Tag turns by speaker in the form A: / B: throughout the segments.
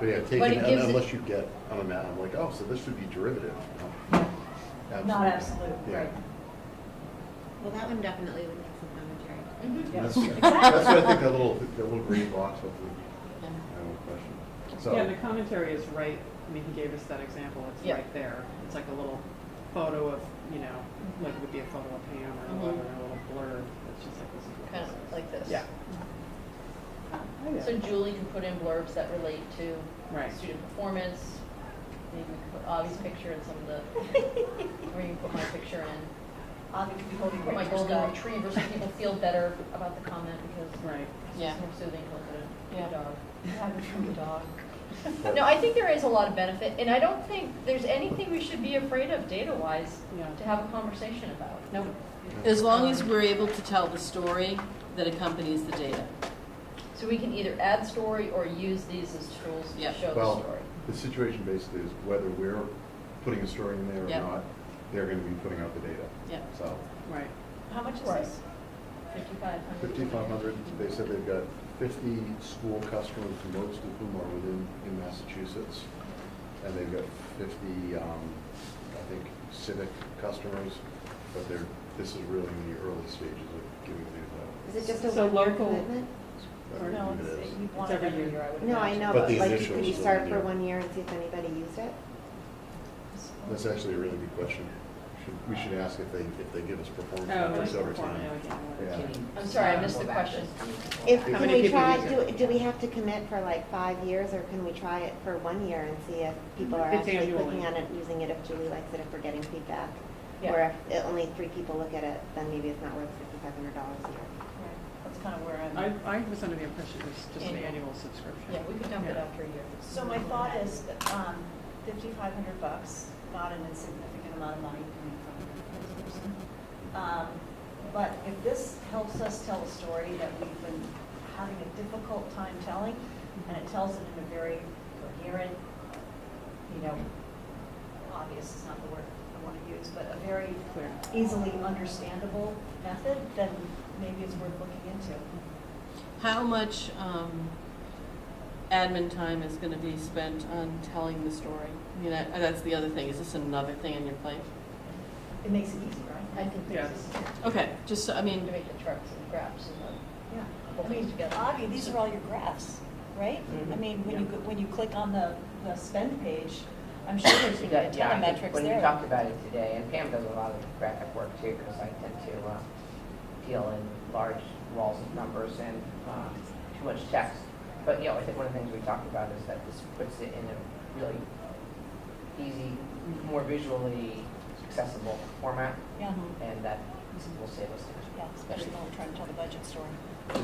A: But yeah,
B: But
A: taking,
B: it gives it-
A: unless you get on a map, I'm like, oh, so this would be derivative. No.
B: Not absolute,
A: Yeah.
B: right.
C: Well, that one definitely would make some commentary.
B: Mhm.
A: That's,
B: Yes.
A: that's what I think that little, that little green box hopefully, I have a question.
D: Yeah, the
A: So,
D: commentary is right, I mean, he gave us that example, it's
B: Yeah.
D: right there. It's like a little photo of, you know, like it would be a photo of Pam or
B: Mhm.
D: whatever, and a little blurb, it's just like this. is what
E: Mm-hmm. kind
D: this is.
E: of like this.
D: Yeah. Oh, yeah.
E: So Julie can put in blurbs that relate to
D: Right.
E: student performance. Maybe we could put Avi's picture in some of the, or you can put my picture in.
B: Avi could be holding
E: Put Oh my
B: Rachel's
E: golden
B: dog.
E: retriever so people feel better about the comment because
D: Right.
E: it's
C: Yeah.
E: just more soothing to look
C: Yeah.
E: at a dog.
B: Having from a dog.
A: but-
E: No, I think there is a lot of benefit, and I don't think there's anything we should be afraid of data-wise
D: Yeah. Oh,
E: to have a conversation about.
C: No,
F: As long as we're able to tell the story that accompanies the data.
E: So we can either add story or use these as tools to
F: Yep.
E: show the
A: well,
E: story.
A: the situation basically is whether we're putting a story in there or
F: Yeah.
A: not, they're gonna be putting out the data.
F: Yeah.
A: So,
D: Right.
E: How much is
B: Right.
E: this? Fifty-five hundred?
A: fifty-five hundred, they said they've got fifty school customers, most of whom are within, in Massachusetts. And they've got fifty, um, I think civic customers, but they're, this is really in the early stages of giving these
C: Is it just a
D: So
C: one-year
D: local-
C: commitment?
A: out.
B: No,
A: It
B: it's,
A: is.
B: you want it
D: every
B: every
D: year.
B: year, I would imagine.
C: No, I know,
A: But
C: but
A: the
C: like,
A: initials
C: could you
A: are
C: start
A: one
C: for
A: year.
C: one year and see if anybody used it?
A: That's actually a really good question. Should- We should ask if they, if they give us performance
D: Oh, like
A: metrics over
D: perform- oh,
A: time.
D: yeah,
A: Yeah.
D: what-
E: I'm sorry, I missed the question.
C: If,
A: How
C: can
D: many
C: we
D: people
C: try,
D: use it?
C: do, do we have to commit for like five years, or can we try it for one year and see if people are
D: It's
C: actually clicking
D: annually.
C: on it, using it, if Julie likes it, if we're getting feedback?
E: Yeah.
C: Or if it- only three people look at it, then maybe it's not worth fifty-five hundred dollars a year.
E: Right, That's kind of where
D: I,
E: I'm,
D: I was under the impression it was just an
E: Annual.
D: annual subscription.
E: yeah, we could dump it
D: Yeah.
E: after a year.
B: So my thought is, um, fifty-five hundred bucks, not an insignificant amount of money coming from this person. Um, But if this helps us tell a story that we've been having a difficult time telling, and it tells it in a very coherent, you know, obvious is not the word I want to use, but a very
D: Clear.
B: easily understandable method, then maybe it's worth looking into.
F: How much um, admin time is going to be spent on telling the story? I mean, that- that's the other thing, is this another thing on your plate?
B: It makes it easy,
E: I
B: right?
E: think
D: Yeah.
E: this is,
F: Okay, just, so- I
E: to
F: mean,
E: make the trucks and graphs and
B: Yeah.
E: the whole
B: I
E: thing
B: mean,
E: together.
B: Avi, these are all your graphs, right?
G: Mm-hmm.
B: I mean, when you, go- when you click on the, the spend page, I'm sure there's
G: You
B: gonna be
G: got-
B: a
G: yeah,
B: ton of
G: I think
B: metrics
G: When you talked
B: there.
G: about it today, and Pam does a lot of graphic work too, because I tend to uh, deal in large walls of numbers and uh, too much text. But, you know, I think one of the things we talked about is that this puts it in a really easy, more visually accessible format,
B: Yeah,
G: and that will save us time.
B: yeah, especially when we're trying to tell the budget story.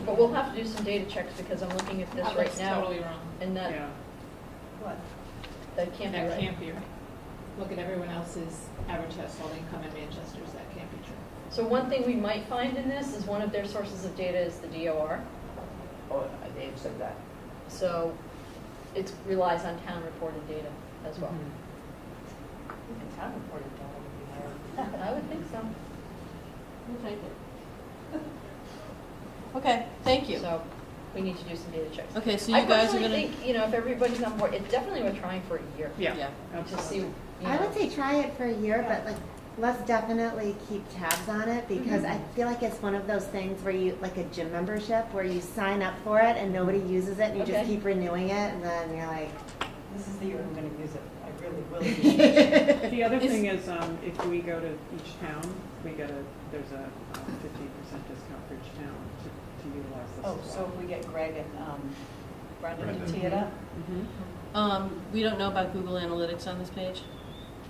E: But we'll have to do some data checks because I'm looking at this
H: Oh,
E: right
H: that's
E: now.
H: totally wrong.
E: And
D: Yeah.
E: that,
B: What?
E: that can't be
H: That
E: right.
H: can't be right. Look at everyone else's average household income in Manchester's, that can't be true.
E: So one thing we might find in this is one of their sources of data is the DOR.
G: Oh, Dave said that.
E: So it relies on town reported data as well.
D: Mm-hmm.
B: Even town reported data would be
E: I would think so.
F: we'll take it. Okay, thank you.
E: So we need to do some data checks.
F: Okay, so you guys are
E: I personally
F: going to.
E: think, you know, if everybody's on board, it's definitely worth trying for a year.
D: Yeah,
F: Yeah.
E: To see,
D: absolutely.
E: you
C: I
E: know.
C: would say try it for a year, but like, let's definitely keep tabs on it, because I feel like it's one of those things where you, like a gym membership, where you sign up for it and nobody uses it, and you just
E: Okay.
C: keep renewing it, and then you're like,
B: hard. This is the year I'm gonna use it, I really will use it.
D: The other
F: Is-
D: thing is, um, if we go to each town, we get a, there's a uh, fifteen percent discount for each town to, to utilize this as
B: Oh,
D: well.
B: so if we get Greg and um, Brendan to
A: Brendan.
B: tee it up?
D: Mhm.
F: Um, we don't know about Google Analytics on this page?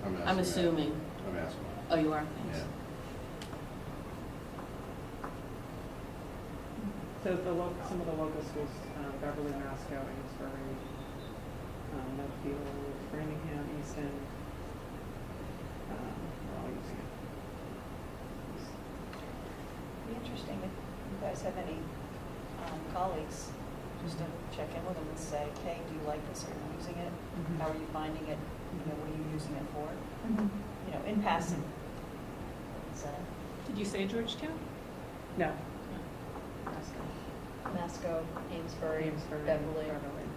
F: I'm
A: asking that.
F: assuming.
A: I'm asking.
F: Oh, you are,
A: that.
F: thanks.
D: So the lo, some of the local schools, um, Beverly, Masco, Amesbury, um, Medfield, Framingham, Easton, um, are all using it.
B: Be interesting if you guys have any um, colleagues, just to check in with them and say, hey, do you like this, are you using it?
D: Mhm.
B: How are you finding it, you know, what are you using it for? You know, in passing. So,
H: Did you say Georgetown?
D: No.
E: Masco, Amesbury,
D: Amesbury,
E: Beverly.
D: Beverly.